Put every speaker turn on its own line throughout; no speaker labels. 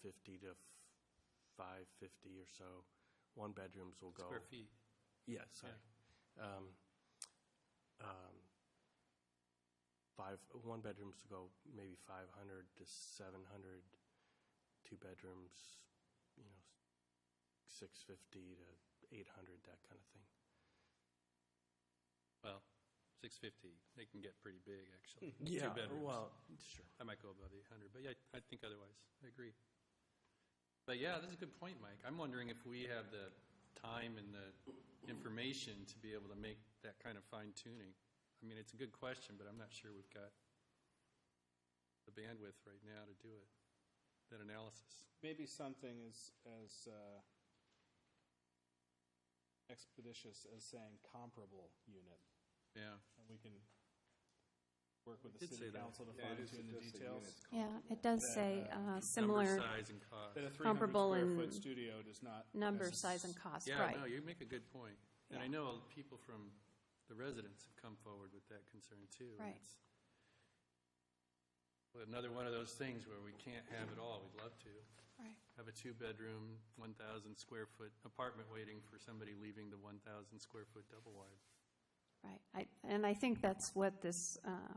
450 to f- 550 or so. One-bedrooms will go.
square feet.
Yeah, sorry. Um, um, Five, one-bedrooms go maybe 500 to 700, two-bedrooms, you know, 650 to 800, that kind of thing.
Well, 650, they can get pretty big, actually. Two
Yeah,
bedrooms.
well, sure.
I might go above 800, but yeah, I think otherwise. I agree. But yeah, this is a good point, Mike. I'm wondering if we have the time and the information to be able to make that kind of fine tuning. I mean, it's a good question, but I'm not sure we've got the bandwidth right now to do it, that analysis.
Maybe something as, as uh, expeditious as saying comparable unit,
Yeah.
and we can work with the
did say
city
that.
council to
Yeah, it
fine
is
tune the
suggesting
details.
units
Yeah, it does say uh, similar
Number, size, and cost.
That a 300
Comparable
square
in
foot studio does not.
number,
necess-
size, and cost,
Yeah, no,
right.
you make a good point. And I
Yeah.
know people from, the residents have come forward with that concern, too. and
Right.
it's- well, Another one of those things where we can't have it all, we'd love to.
Right.
Have a two-bedroom, 1,000-square-foot apartment waiting for somebody leaving the 1,000-square-foot double-wide.
Right, I- and I think that's what this uh,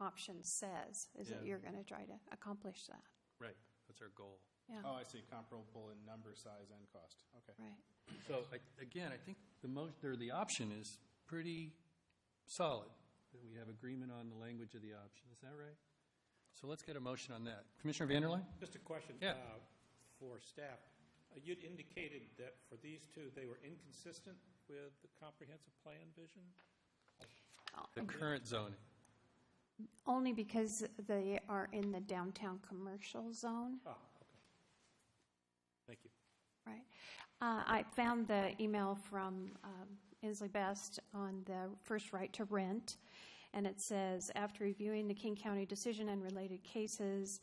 option says, is that
Yeah.
you're going to try to accomplish that.
Right, that's our goal.
Oh,
Yeah,
I see, comparable in number, size, and cost. Okay.
right.
So, I- again, I think the most, or the option is pretty solid, that we have agreement on the language of the option. Is that right? So let's get a motion on that. Commissioner Vanderline?
Just a question.
Yeah.
uh, For staff. Uh, You'd indicated that for these two, they were inconsistent with the comprehensive plan vision?
The current zoning.
Only because they are in the downtown commercial zone,
Ah, okay. Thank you.
right? Uh, I found the email from um, Inslee Best on the first right to rent, and it says, "After reviewing the King County decision and related cases,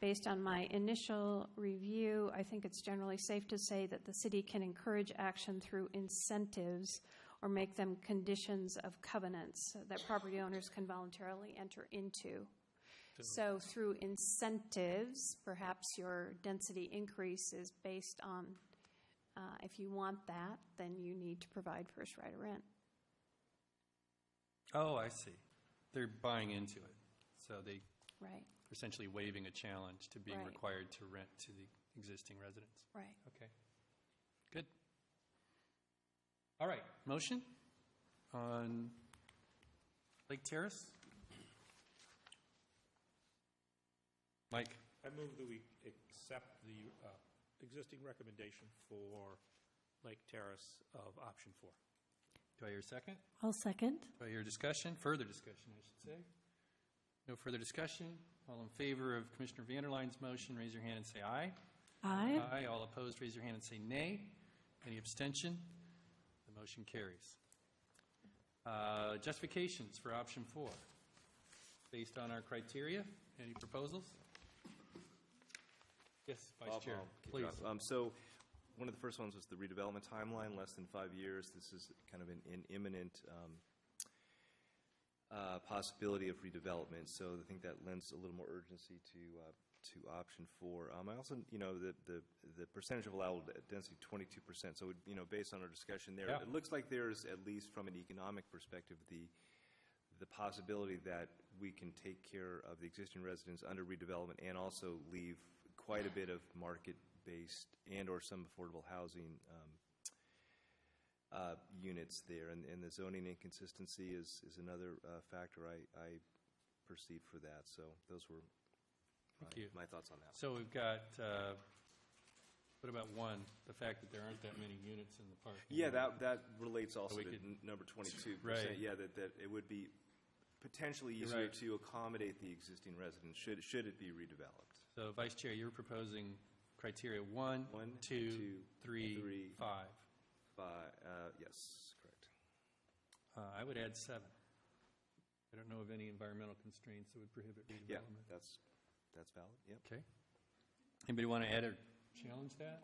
based on my initial review, I think it's generally safe to say that the city can encourage action through incentives or make them conditions of covenants that property owners can voluntarily enter into." So through incentives, perhaps your density increase is based on, uh, if you want that, then you need to provide first right of rent.
Oh, I see. They're buying into it. So they
Right,
essentially waiving a challenge to being
Right.
required to rent to the existing residents.
right.
Okay. Good. All right, motion on Lake Terrace? Mike?
I move that we accept the uh, existing recommendation for Lake Terrace of option four.
Do I hear a second?
I'll second.
Do I hear discussion? Further discussion, I should say. No further discussion? All in favor of Commissioner Vanderline's motion, raise your hand and say aye.
Aye.
All opposed, raise your hand and say nay. Any abstention? The motion carries. Uh, Justifications for option four, based on our criteria. Any proposals? Yes, Vice
I'll-
Chair,
I'll kick it off.
please.
Um, So, one of the first ones was the redevelopment timeline, less than five years. This is kind of an an imminent um, uh, possibility of redevelopment, so I think that lends a little more urgency to, uh, to option four. Um, I also, you know, the, the the percentage of allowable density, 22%, so, you know, based on our discussion there,
Yeah.
it looks like there's, at least from an economic perspective, the, the possibility that we can take care of the existing residents under redevelopment and also leave quite a bit of market-based and/or some affordable housing um, uh, units there. And and the zoning inconsistency is, is another uh, factor I, I perceived for that. So those were
Thank you.
my- my thoughts on that.
So we've got, uh, what about one, the fact that there aren't that many units in the park?
Yeah, that, that relates also
we
to
could-
n- number 22%.
Right.
Yeah, that, that it would be potentially easier
right.
to accommodate the existing residents, should, should it be redeveloped.
So Vice Chair, you're proposing criteria one,
One,
two,
two,
three,
three.
five.
By, uh, yes, correct.
Uh, I would add seven. I don't know of any environmental constraints that would prohibit
Yeah,
redevelopment.
that's, that's valid, yep.
Okay. Anybody want to add or challenge that?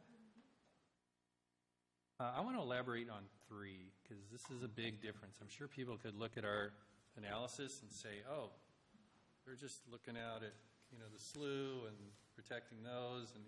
Uh, I want to elaborate on three, because this is a big difference. I'm sure people could look at our analysis and say, oh, they're just looking out at, you know, the slough and protecting those, and